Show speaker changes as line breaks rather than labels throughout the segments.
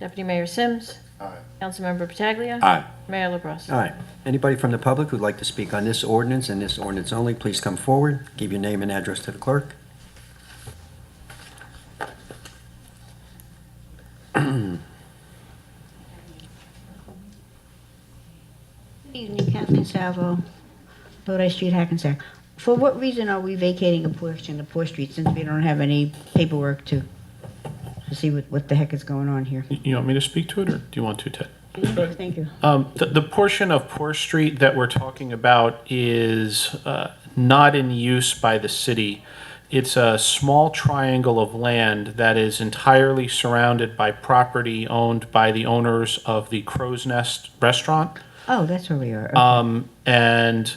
Deputy Mayor Sims.
Aye.
Councilmember Pataglia.
Aye.
Mayor LaBrus.
All right. Anybody from the public who'd like to speak on this ordinance and this ordinance only, please come forward. Give your name and address to the clerk.
Good evening, Kathleen Salvo, Lodi Street, Hackensack. For what reason are we vacating a portion of Poor Street since we don't have any paperwork to, to see what, what the heck is going on here?
You want me to speak to it, or do you want to, Ted?
Thank you.
Um, the, the portion of Poor Street that we're talking about is uh, not in use by the city. It's a small triangle of land that is entirely surrounded by property owned by the owners of the Crow's Nest Restaurant.
Oh, that's where we are.
Uh,
Okay.
Um, And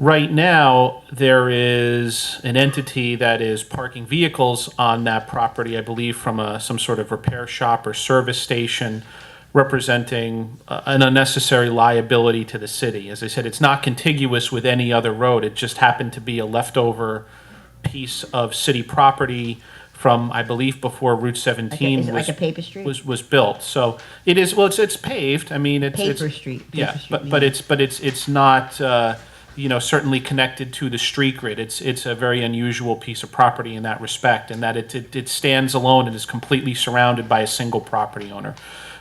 right now, there is an entity that is parking vehicles on that property, I believe from a, some sort of repair shop or service station, representing uh, an unnecessary liability to the city. As I said, it's not contiguous with any other road. It just happened to be a leftover piece of city property from, I believe, before Route
Like
17
a- is it
was
like a paper street?
was was built. So it is well, it's it's paved. I mean, it's it's-
Paper street, paper
yeah,
street,
but but
yeah.
it's but it's it's not uh, you know certainly connected to the street grid. It's it's a very unusual piece of property in that respect, in that it it, it stands alone and is completely surrounded by a single property owner.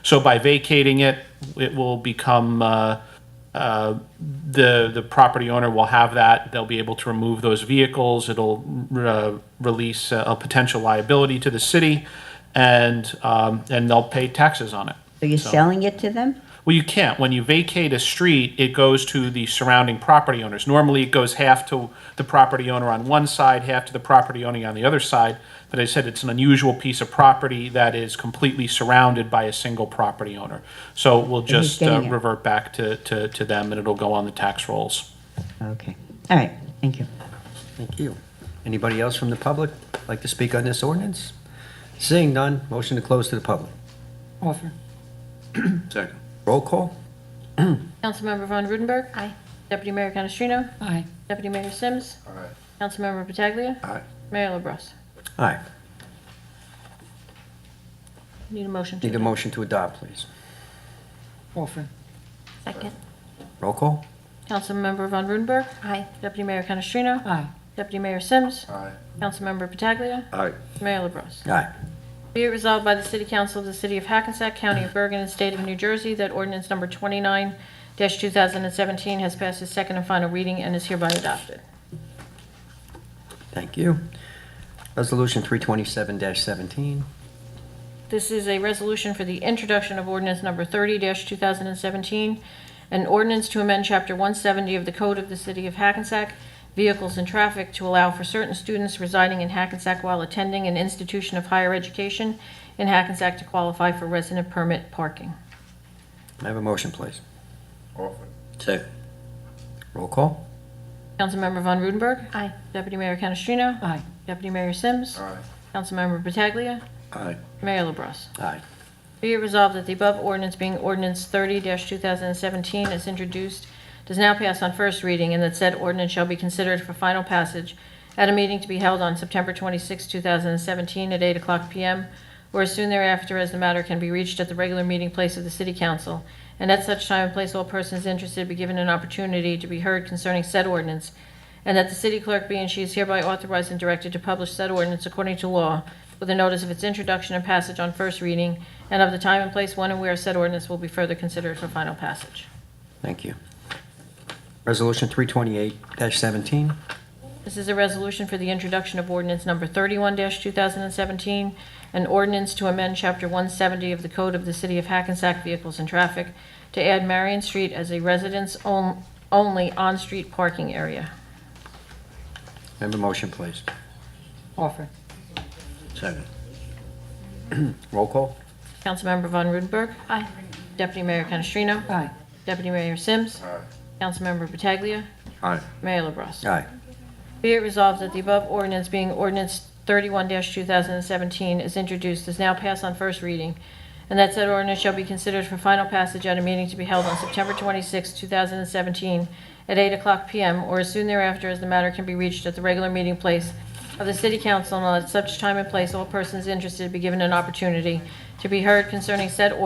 So by vacating it, it will become. Uh, uh, the the property owner will have that. They'll be able to remove those vehicles. It'll uh, release a, a potential liability to the city, and um, and they'll pay taxes on it.
So you're selling it to them?
Well, you can't. When you vacate a street, it goes to the surrounding property owners. Normally, it goes half to the property owner on one side, half to the property owner on the other side. But I said it's an unusual piece of property that is completely surrounded by a single property owner. So we'll
he's
just uh,
getting it.
revert back to, to, to them and it'll go on the tax rolls.
Okay. All right, thank you.
Thank you. Anybody else from the public like to speak on this ordinance? Seeing none, motion to close to the public.
Offer.
Second.
Roll call?
Councilmember Von Rudenberg. Aye. Deputy Mayor Canestrino.
Aye.
Deputy Mayor Sims.
Aye.
Councilmember Pataglia.
Aye.
Mayor LaBrus.
Aye.
Need a motion to
Need a
adopt.
motion to adopt, please.
Offer.
Second.
Roll call?
Councilmember Von Rudenberg. Aye. Deputy Mayor Canestrino.
Aye.
Deputy Mayor Sims.
Aye.
Councilmember Pataglia.
Aye.
Mayor LaBrus.
Aye.
Be it resolved by the City Council of the City of Hackensack, County of Bergen, and State of New Jersey that ordinance number 29-2017 has passed its second and final reading and is hereby adopted.
Thank you. Resolution 327-17.
This is a resolution for the introduction of ordinance number 30-2017, an ordinance to amend Chapter 170 of the Code of the City of Hackensack, Vehicles and Traffic, to allow for certain students residing in Hackensack while attending an institution of higher education in Hackensack to qualify for resident permit parking.
May I have a motion, please?
Offer.
Second.
Roll call?
Councilmember Von Rudenberg. Aye. Deputy Mayor Canestrino.
Aye.
Deputy Mayor Sims.
Aye.
Councilmember Pataglia.
Aye.
Mayor LaBrus.
Aye.
Be it resolved that the above ordinance being ordinance 30-2017 as introduced does now pass on first reading and that said ordinance shall be considered for final passage at a meeting to be held on September 26, 2017 at 8 o'clock p.m. or as soon thereafter as the matter can be reached at the regular meeting place of the City Council. And at such time and place, all persons interested be given an opportunity to be heard concerning said ordinance and that the city clerk be and she is hereby authorized and directed to publish said ordinance according to law with a notice of its introduction and passage on first reading and of the time and place when and where said ordinance will be further considered for final passage.
Thank you. Resolution 328-17.
This is a resolution for the introduction of ordinance number 31-2017, an ordinance to amend Chapter 170 of the Code of the City of Hackensack Vehicles and Traffic to add Marion Street as a residence-only on-street parking area.
May I have a motion, please?
Offer.
Second.
Roll call?
Councilmember Von Rudenberg. Aye. Deputy Mayor Canestrino.
Aye.
Deputy Mayor Sims.
Aye.
Councilmember Pataglia.
Aye.
Mayor LaBrus.
Aye.
Be it resolved that the above ordinance being ordinance 31-2017 is introduced, is now passed on first reading, and that said ordinance shall be considered for final passage at a meeting to be held on September 26, 2017, at 8 o'clock p.m. or as soon thereafter as the matter can be reached at the regular meeting place of the City Council, and at such time and place, all persons interested be given an opportunity to be heard concerning said